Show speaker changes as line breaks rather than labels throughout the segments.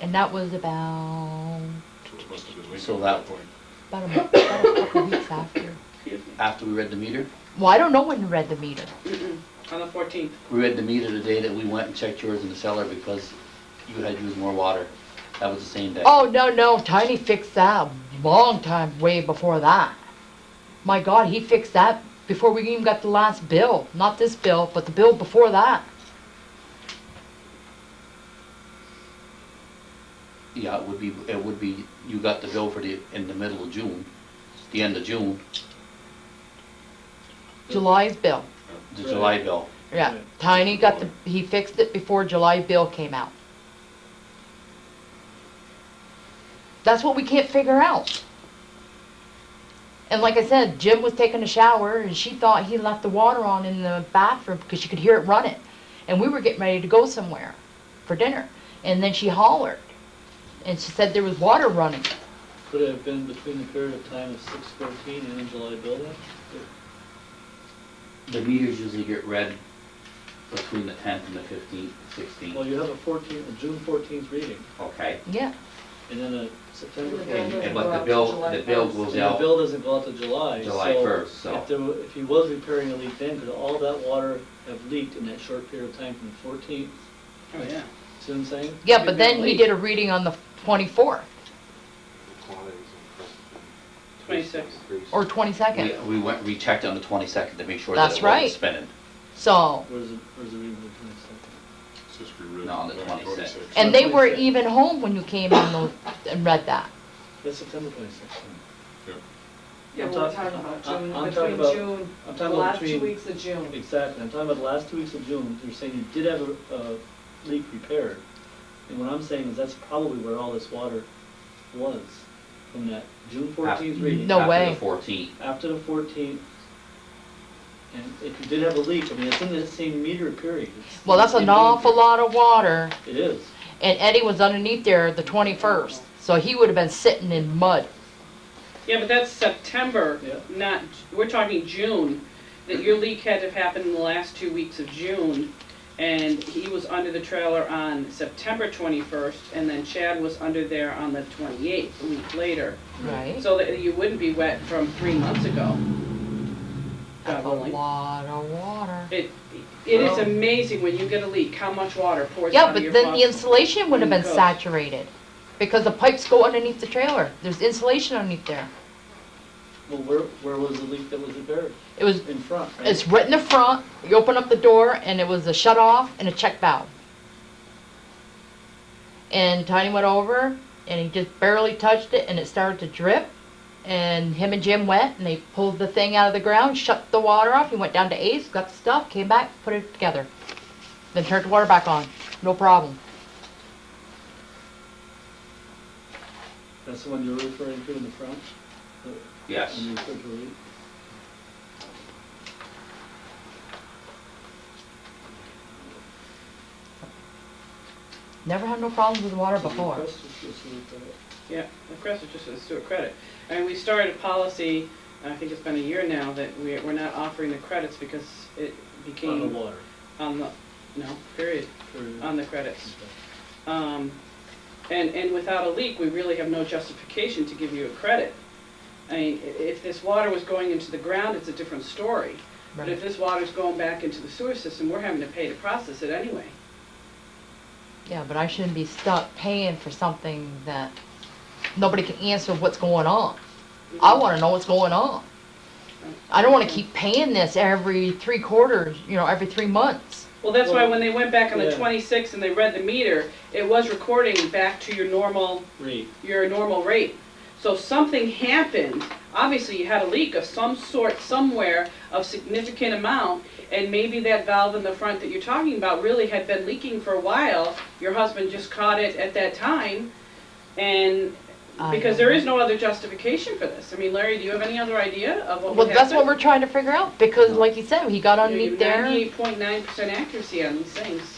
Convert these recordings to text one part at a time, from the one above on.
And that was about,
So it must have been legal
So
at that
that-
point.
about a month, about a couple weeks after.
Excuse me.
After we read the meter,
Well, I don't know when you read the meter.
Mm-mm. On the fourteenth.
we read the meter the day that we went and checked yours in the cellar because you had used more water. That was the same day.
Oh, no, no, Tiny fixed that long time, way before that. My God, he fixed that before we even got the last bill. Not this bill, but the bill before that.
Yeah, it would be, it would be, you got the bill for the, in the middle of June, the end of June,
July's bill.
the July bill.
Yeah, Tiny got the, he fixed it before July bill came out. That's what we can't figure out. And like I said, Jim was taking a shower and she thought he left the water on in the bathroom because she could hear it running. And we were getting ready to go somewhere for dinner. And then she hollered and she said there was water running.
Could it have been between the period of time of six fourteen and the July building?
The meters usually get read between the tenth and the fifteenth,
Well,
sixteenth.
you have a fourteen, a June fourteenth reading,
Okay.
Yeah,
and then a September
And the
And,
fourteenth.
and but the bill, the bill
And
goes
the
out
bill doesn't go out to July, so.
July first, so.
If there, wa- if he was repairing a leak then, could all that water have leaked in that short period of time from the fourteenth?
Oh, yeah.
See what I'm saying?
yeah, but then he did a reading on the 24th
The quantities and-
Twenty-six.
Increase.
or 22nd.
We, we went, rechecked on the twenty-second to make sure that
That's
it
right.
wasn't spinning.
So.
Where's the, where's the reading of the twenty-second?
It's just rewritten
No, on the
back
26th.
26.
And they were
26th.
even home when you came on those and read that.
That's September twenty-sixth.
Yeah,
I'm
well, we're
talk-
talking about
I- I-
June,
I'm talking
between
about-
June,
I'm
the
talking about
last two
between,
weeks of June.
exactly, I'm talking about the last two weeks of June, you're saying you did have a, a leak repaired. And what I'm saying is that's probably where all this water was, from that June fourteenth reading.
No
After
way.
the fourteenth.
after the fourteenth, and if you did have a leak, I mean, it's in that same meter period. It's-
Well, that's an awful lot of water,
It is.
and Eddie was underneath there the 21st, so he would have been sitting in mud.
Yeah, but that's September,
Yeah.
not, we're talking June, that your leak had to have happened in the last two weeks of June. And he was under the trailer on September twenty-first, and then Chad was under there on the twenty-eighth, a week later.
Right.
So that you wouldn't be wet from three months ago. God
That's a
willing.
lot of water.
It, it is amazing when you get a leak, how much water pours
Yeah,
out of
but
your
then the
faucet.
insulation would have been
Goes.
saturated, because the pipes go underneath the trailer. There's insulation underneath there.
Well, where, where was the leak that was repaired?
It was,
In front, right?
it's right in the front, you open up the door, and it was a shut off and a check valve. And Tiny went over, and he just barely touched it, and it started to drip. And him and Jim went, and they pulled the thing out of the ground, shut the water off. He went down to Ace, got the stuff, came back, put it together. Then turned the water back on. No problem.
That's the one you're referring to in the front? the-
Yes.
Mm.
when you referred to a leak?
Never had no problems with water
The
before.
request was just to repair it.
Yeah, the press is just a Stewart credit. And we started a policy, I think it's been a year now, that we- we're not offering the credits because it
On the
became
water.
on the, no, period,
period.
on the credits.
Okay.
Um, And, and without a leak, we really have no justification to give you a credit. I mean, i- if this water was going into the ground, it's a different story. But if
Right.
this water's going back into the sewer system, we're having to pay to process it anyway.
Yeah, but I shouldn't be stuck paying for something that nobody can answer what's going on. I want to know what's going on. I don't want to keep paying this every three quarters, you know, every three months.
Well, that's why
Well,
when they went back on the
yeah.
26th and they read the meter, it was recording back to your normal
Read.
your normal rate. So something happened, obviously you had a leak of some sort somewhere of significant amount, and maybe that valve in the front that you're talking about really had been leaking for a while. Your husband just caught it at that time, and,
I
because there
know.
is no other justification for this. I mean, Larry, do you have any other idea of what
Well,
would
that's what we're trying to figure out because, like you said, he got underneath there
Ninety-eight point nine percent accuracy on these things.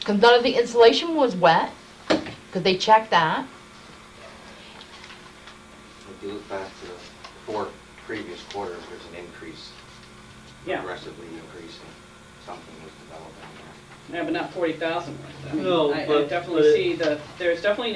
because none of the insulation was wet because they checked that.
If you look back to the four previous quarters, there's an increase,
Yeah,
aggressively increasing. Something was developing there.
yeah, but not forty thousand. I mean,
No,
I- I
but-
definitely
but it-
see the, there's definitely